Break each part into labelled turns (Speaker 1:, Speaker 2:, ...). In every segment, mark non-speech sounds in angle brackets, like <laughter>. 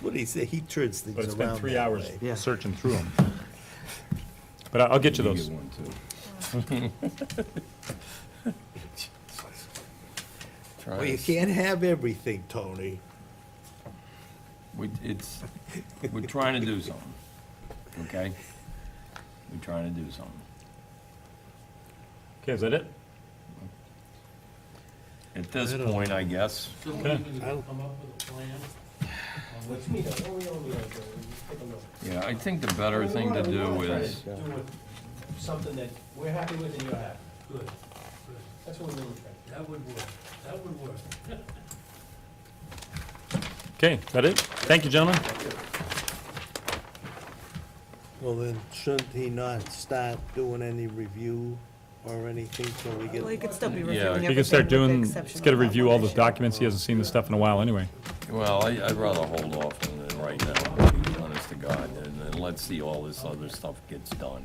Speaker 1: what he said, he turns things
Speaker 2: But
Speaker 1: around
Speaker 2: it's been three
Speaker 1: that
Speaker 2: hours
Speaker 1: way.
Speaker 3: Yeah.
Speaker 2: searching through them. But I- I'll get you those.
Speaker 4: one too. <laughs> Try
Speaker 1: Well, you
Speaker 4: us.
Speaker 1: can't have everything, Tony.
Speaker 4: We, it's, we're trying to do something, okay? We're trying to do something.
Speaker 2: Okay, is that it?
Speaker 4: At this point, I guess,
Speaker 5: So we
Speaker 2: Okay.
Speaker 5: need to come up with a plan on
Speaker 6: Which
Speaker 5: which
Speaker 6: means, oh, we don't need to, just take a look.
Speaker 4: yeah, I think the better thing to do
Speaker 6: We wanna
Speaker 4: is,
Speaker 6: try to do it- Something that we're happy with and you're happy.
Speaker 5: good, good,
Speaker 6: That's what we're really trying.
Speaker 5: that would work, that would work.
Speaker 2: Okay, that it? Thank you, gentlemen.
Speaker 1: Well, then shouldn't he not start doing any review or anything till we
Speaker 7: Well, you
Speaker 1: get,
Speaker 7: could still be
Speaker 4: Yeah,
Speaker 7: reviewing everything.
Speaker 2: You can start
Speaker 7: with the
Speaker 2: doing,
Speaker 7: exception
Speaker 2: let's get a
Speaker 7: of that
Speaker 2: review
Speaker 7: one
Speaker 2: all the
Speaker 7: issue.
Speaker 2: documents. He hasn't seen this stuff in a while anyway.
Speaker 4: well, I- I'd rather hold off on it right now, to be honest to God, and then let's see all this other stuff gets done.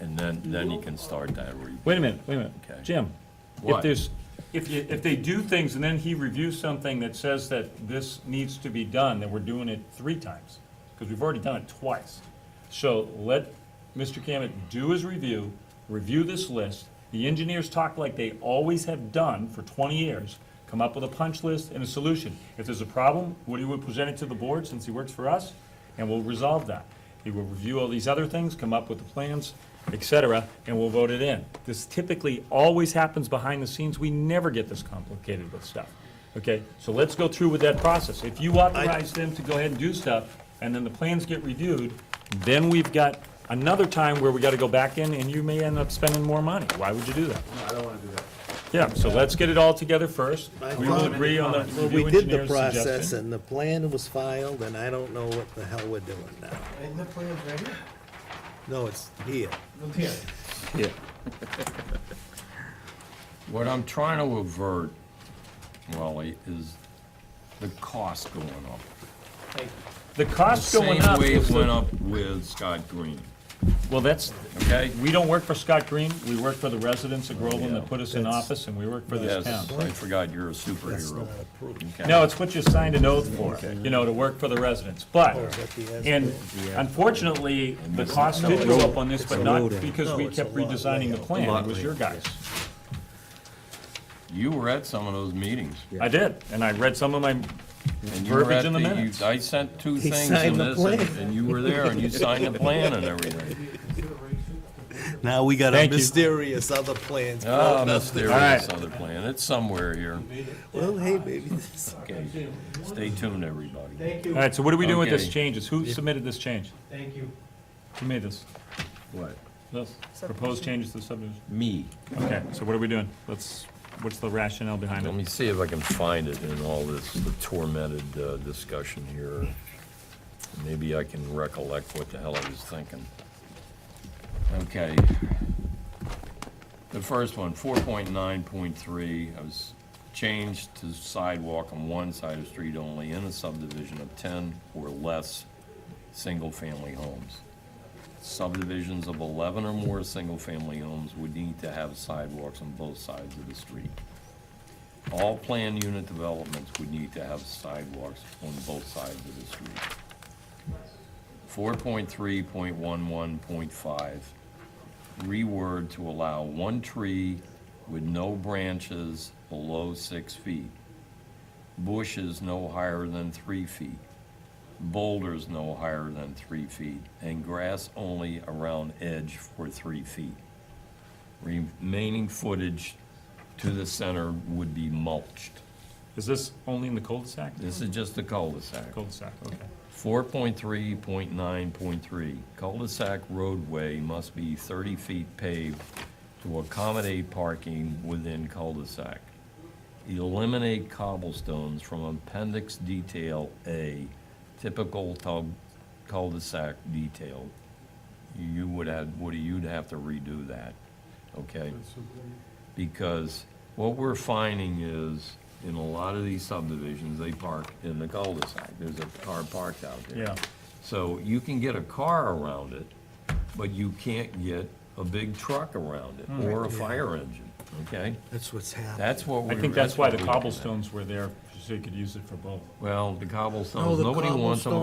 Speaker 4: And then, then you can start that review.
Speaker 2: Wait a minute, wait a minute.
Speaker 4: Okay.
Speaker 2: Jim, if
Speaker 4: What?
Speaker 2: there's, if you, if they do things and then he reviews something that says that this needs to be done, then we're doing it three times. Because we've already done it twice. So let Mr. Cammett do his review, review this list. The engineers talk like they always have done for twenty years, come up with a punch list and a solution. If there's a problem, Woody would present it to the board since he works for us, and we'll resolve that. He will review all these other things, come up with the plans, et cetera, and we'll vote it in. This typically always happens behind the scenes. We never get this complicated with stuff. Okay, so let's go through with that process. If you authorize them to go ahead and do stuff, and then the plans get reviewed, then we've got another time where we gotta go back in, and you may end up spending more money. Why would you do that?
Speaker 8: I don't wanna do that.
Speaker 2: Yeah, so let's get it all together first.
Speaker 1: I
Speaker 2: We will
Speaker 1: thought-
Speaker 2: agree on the
Speaker 1: well, we
Speaker 2: review
Speaker 1: did the
Speaker 2: engineer's
Speaker 1: process
Speaker 2: suggestion.
Speaker 1: and the plan was filed and I don't know what the hell we're doing now.
Speaker 6: Isn't the plan right here?
Speaker 1: No, it's here.
Speaker 6: Look here.
Speaker 4: What I'm trying to avert, Wally, is the cost going up.
Speaker 6: Thank you.
Speaker 2: The cost going
Speaker 4: Same
Speaker 2: up
Speaker 4: way it
Speaker 2: is,
Speaker 4: went
Speaker 2: the-
Speaker 4: up with Scott Green,
Speaker 2: well, that's,
Speaker 4: okay?
Speaker 2: we don't work for Scott Green, we work for the residents of Groveland
Speaker 4: yeah.
Speaker 2: that put us in
Speaker 1: That's-
Speaker 2: office, and we work for this town.
Speaker 4: Yes, I forgot you're a
Speaker 1: That's
Speaker 4: superhero.
Speaker 1: not approved.
Speaker 4: Okay.
Speaker 2: No, it's what you signed an oath for, you know, to work for the residents, but,
Speaker 1: Oh, is that the
Speaker 2: and
Speaker 1: asphalt?
Speaker 2: unfortunately, the cost did go up on this, but not because
Speaker 1: No,
Speaker 2: we
Speaker 1: it's
Speaker 2: kept
Speaker 1: a lot
Speaker 2: redesigning the
Speaker 1: layout.
Speaker 2: plan,
Speaker 4: A lot
Speaker 2: it was your guys.
Speaker 4: You were at some of those meetings.
Speaker 2: I did, and I read some of my
Speaker 4: and you were
Speaker 2: Verbiage
Speaker 4: at
Speaker 2: in the
Speaker 4: you-
Speaker 2: minutes.
Speaker 4: I sent two
Speaker 1: He
Speaker 4: things
Speaker 1: signed
Speaker 4: in
Speaker 1: the
Speaker 4: this, and-
Speaker 1: plan.
Speaker 4: and you were there, and you signed
Speaker 1: <laughs>
Speaker 4: the plan and everything.
Speaker 1: Now we got a
Speaker 2: Thank you. Ah,
Speaker 1: mysterious other plans.
Speaker 4: Oh,
Speaker 1: floating out there.
Speaker 4: mysterious other plan, it's somewhere here.
Speaker 1: Well, hey, baby, <laughs> this-
Speaker 4: Okay, stay tuned, everybody.
Speaker 6: Thank you.
Speaker 2: All right, so what are we doing with this
Speaker 4: Okay.
Speaker 2: changes? Who submitted this change?
Speaker 6: Thank you.
Speaker 2: Who made this?
Speaker 4: What?
Speaker 2: This proposed changes to the subdivision?
Speaker 4: Me.
Speaker 2: Okay, so what are we doing? Let's, what's the rationale behind
Speaker 4: Let me
Speaker 2: it?
Speaker 4: see if I can find it in all this the tormented uh, discussion here. Maybe I can recollect what the hell I was thinking. Okay. The first one, 4.9.3, I was changed to sidewalk on one side of the street only in a subdivision of 10 or less single-family homes. Subdivisions of 11 or more single-family homes would need to have sidewalks on both sides of the street. All planned unit developments would need to have sidewalks on both sides of the street. Four point three point one one point five, reword to allow one tree with no branches below six feet. Bushes no higher than three feet. Boulders no higher than three feet, and grass only around edge for three feet. Remaining footage to the center would be mulched.
Speaker 2: Is this only in the cul-de-sac?
Speaker 4: This is just the cul-de-sac.
Speaker 2: Cul-de-sac, okay.
Speaker 4: Four point three point nine point three, cul-de-sac roadway must be thirty feet paved to accommodate parking within cul-de-sac. Eliminate cobblestones from appendix detail A, typical tub- cul-de-sac detail. You would have, Woody, you'd have to redo that, okay? Because what we're finding is, in a lot of these subdivisions, they park in the cul-de-sac. There's a car parked out there.
Speaker 2: Yeah.
Speaker 4: So you can get a car around it, but you can't get a big truck around it, or a fire engine, okay?
Speaker 1: that's what's happening.
Speaker 4: That's what we
Speaker 2: I think that's why
Speaker 4: what
Speaker 2: the
Speaker 4: we're looking at.
Speaker 2: cobblestones were there, so you could use it for both.
Speaker 4: Well, the
Speaker 1: No,
Speaker 4: cobblestones,
Speaker 1: the
Speaker 4: nobody wants them